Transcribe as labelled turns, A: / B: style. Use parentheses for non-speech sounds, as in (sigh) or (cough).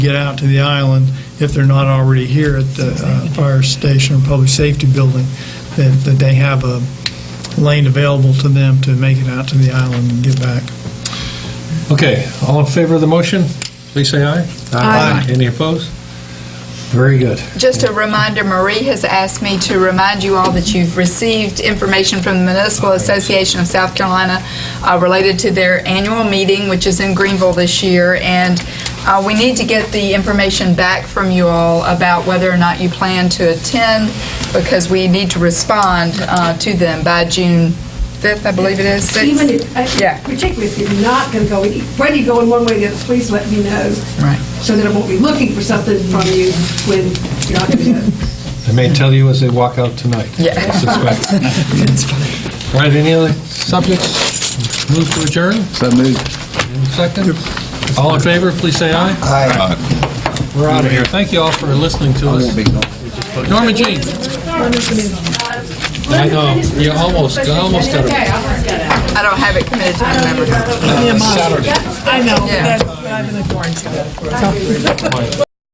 A: get out to the island if they're not already here at the uh, fire station or public safety building, that, that they have a lane available to them to make it out to the island and get back.
B: Okay, all in favor of the motion, please say aye.
C: Aye.
B: Any opposed? Very good.
C: Just a reminder, Marie has asked me to remind you all that you've received information from the Municipal Association of South Carolina uh, related to their annual meeting, which is in Greenville this year, and uh, we need to get the information back from you all about whether or not you plan to attend, because we need to respond uh, to them by June 5th, I believe it is, 6th.
D: Even if,
C: Yeah.
D: I- particularly if you're not going to go, whether you're going one way or the other, please let me know.
C: Right.
D: So that I won't be looking for something from you when you're not going to go.
B: They may tell you as they walk out tonight.
C: Yeah.
B: I (laughs) suspect. All right, any other subjects? Move to adjourn,
E: So moved.
B: second. All in favor, please say aye. Aye. We're out of here. Thank you all for listening to us. Norma Jean. I know, you almost, I almost got it.
C: I don't have it committed to my memory.
B: Saturday.
F: I know,
C: Yeah.
F: but I'm in a boring